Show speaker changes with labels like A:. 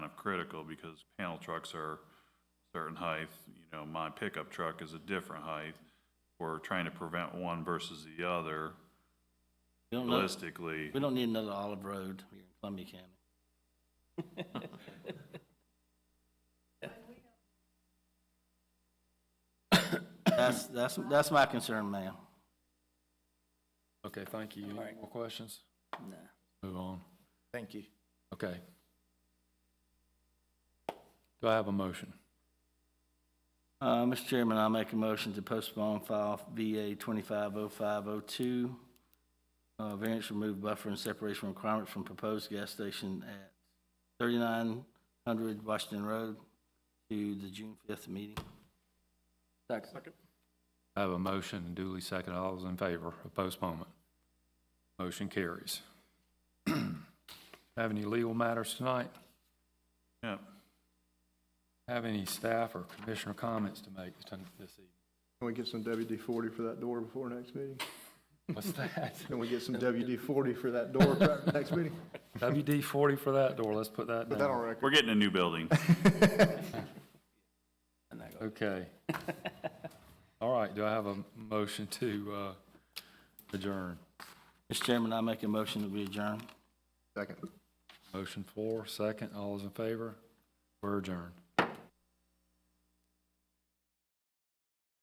A: critical because panel trucks are a certain height, you know, my pickup truck is a different height. We're trying to prevent one versus the other
B: We don't, know-
A: realistically.
B: we don't need another Olive Road here in Columbia County. That's, that's, that's my concern, ma'am.
C: Okay, thank you. Any
D: All right.
C: more questions?
D: No.
C: Move on.
D: Thank you.
C: Okay. Do I have a motion?
B: Uh, Mr. Chairman, I make a motion to postpone file VA twenty-five oh five oh two. Uh, variance remove buffer and separation requirements from proposed gas station at thirty-nine hundred Washington Road to the June fifth meeting.
D: Second.
C: I have a motion and duly seconded. All those in favor of postponement? Motion carries. Have any legal matters tonight?
A: Yeah,
C: Have any staff or commissioner comments to make ton- this evening?
E: Can we get some WD-40 for that door before next meeting?
C: What's that?
E: Can we get some WD-40 for that door prior to next meeting?
C: WD forty for that door. Let's put that
E: Put that on
C: down.
E: record.
A: we're getting a new building.
C: Okay. All right, do I have a motion to uh, adjourn?
B: Mr. Chairman, I make a motion that we adjourn.
E: Second.
C: Motion floor, second. All those in favor? We're adjourned.